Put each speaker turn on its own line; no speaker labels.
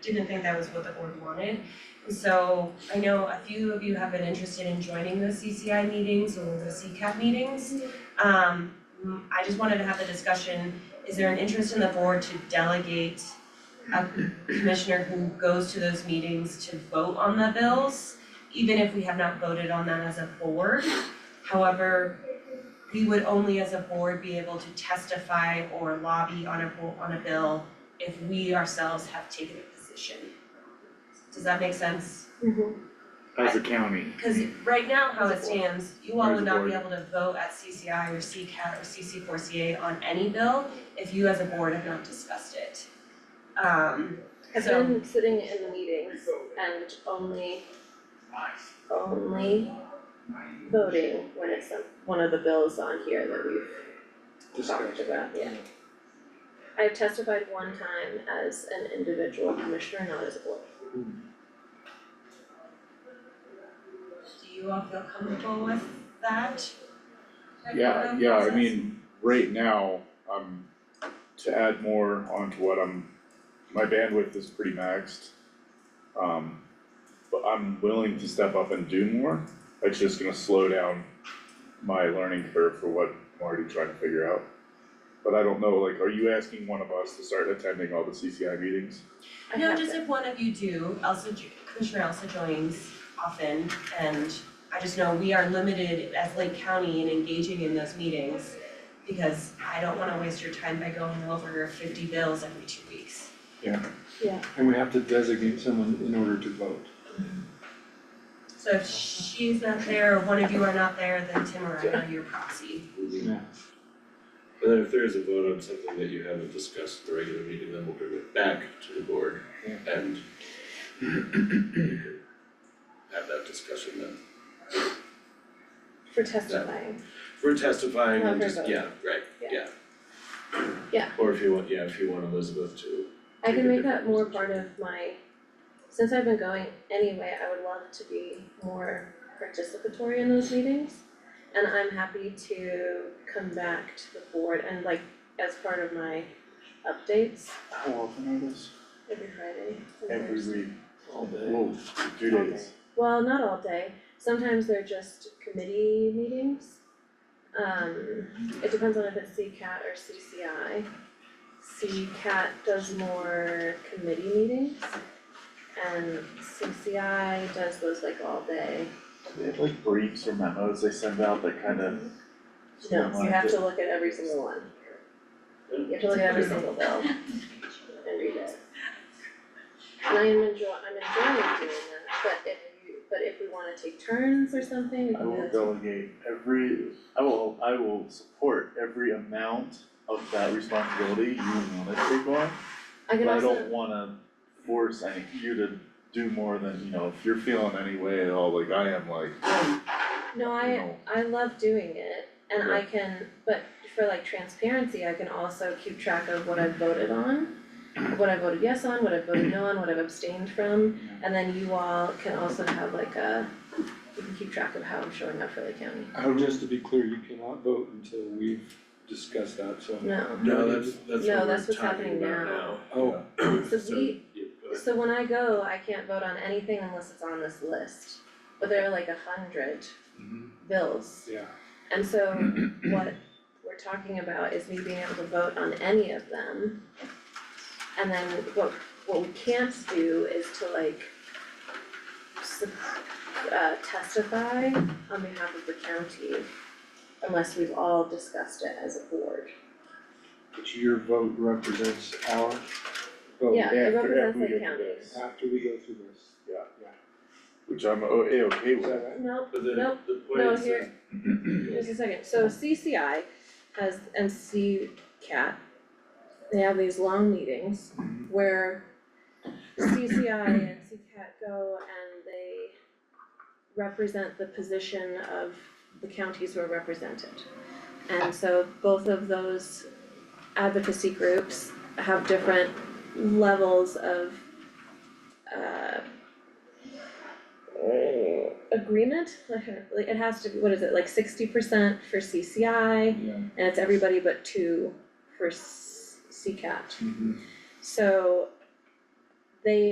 didn't think that was what the board wanted. So I know a few of you have been interested in joining those CCI meetings or the CCAP meetings. Um, mm, I just wanted to have the discussion, is there an interest in the board to delegate a commissioner who goes to those meetings to vote on the bills, even if we have not voted on them as a board? However, we would only as a board be able to testify or lobby on a bo- on a bill if we ourselves have taken a position. Does that make sense?
as a county.
Cause right now, how it stands, you all
Or as
would
a
not be
board.
able to vote at CCI or CCAT or CC four CA on any bill if you as a board have not discussed it. Um,
I've
So-
been sitting in the meetings and only, only voting when it's some- one of the bills on here that we've talked about, yeah. I've testified one time as an individual commissioner, not as a board.
do you all feel comfortable with that? Like,
Yeah,
um,
yeah, I
process?
mean, right now, um, to add more onto what I'm, my bandwidth is pretty maxed. Um, but I'm willing to step up and do more, it's just gonna slow down my learning curve for what I'm already trying to figure out. But I don't know, like, are you asking one of us to start attending all the CCI meetings?
I
No,
have
just
been.
if one of you do, Elsa, jo- Commissioner Elsa joins often, and I just know we are limited as Lake County in engaging in those meetings. Because I don't wanna waste your time by going over fifty bills every two weeks.
And we have to designate someone in order to vote.
So if she's not there, or one of you are not there, then Tim or I are your proxy.
Yeah.
And then if there is a vote on something that you haven't discussed at the regular meeting, then we'll bring it back to the board
Yeah.
and you can have that discussion then.
For testifying,
For testifying and
Not for
just,
voting.
yeah, right,
Yeah.
yeah.
Yeah.
Or if you want, yeah, if you want Elizabeth to,
I can make that
Different
more
position.
part of my, since I've been going anyway, I would love to be more participatory in those meetings. And I'm happy to come back to the board and like, as part of my updates
How often are those?
every Friday. and
Every
Thursday.
week. All day.
Whoa, two
All
days.
day. Well, not all day, sometimes they're just committee meetings. Um, it depends on if it's CCAT or CCI. CCAT does more committee meetings. And CCI does those like all day.
They have like briefs or memos they send out that kind of.
No, you have to look at every single one. You have to look at every single bill and read it. And I am enjoy, I'm enjoying doing that, but if you, but if we wanna take turns or something, we
I
can do
will
that.
delegate every, I will, I will support every amount of that responsibility you wanna take on.
I can
But I
also,
don't wanna force any, you to do more than, you know, if you're feeling any way at all, like I am, like,
no, Um, I,
you know,
I love doing it and I can, but for like transparency, I can also keep track of what I've voted on. What I voted yes on, what I voted no on, what I've abstained from, and then you all can also have like a, you can keep track of how I'm showing up for the county.
Oh, just to be clear, you cannot vote until we've discussed that, so.
No,
no, that's, that's
No, that's
what
what's
we're talking
happening
about
now.
now.
Oh,
so we,
Yeah, go ahead.
so when I go, I can't vote on anything unless it's on this list, but there are like a hundred
Mm-hmm.
bills.
yeah.
And so what we're talking about is me being able to vote on any of them. And then what what we can't do is to like s- uh testify on behalf of the county unless we've all discussed it as a board.
But your vote represents our vote
Yeah, it
after-
represents
after we
the
get to
counties.
after we go through this.
Which I'm o- eh, okay
Is
with.
that right?
No,
But the,
Nope.
the point
no,
is that
here, just a second, so CCI has, and CCAT, they have these long meetings
Mhm.
where CCI and CCAT go and they represent the position of the counties who are represented. And so both of those advocacy groups have different levels of uh agreement, like like, it has to be, what is it, like sixty percent for CCI
Yeah.
and it's everybody but
Mm-hmm.
two for s- CCAT.
Mhm.
So they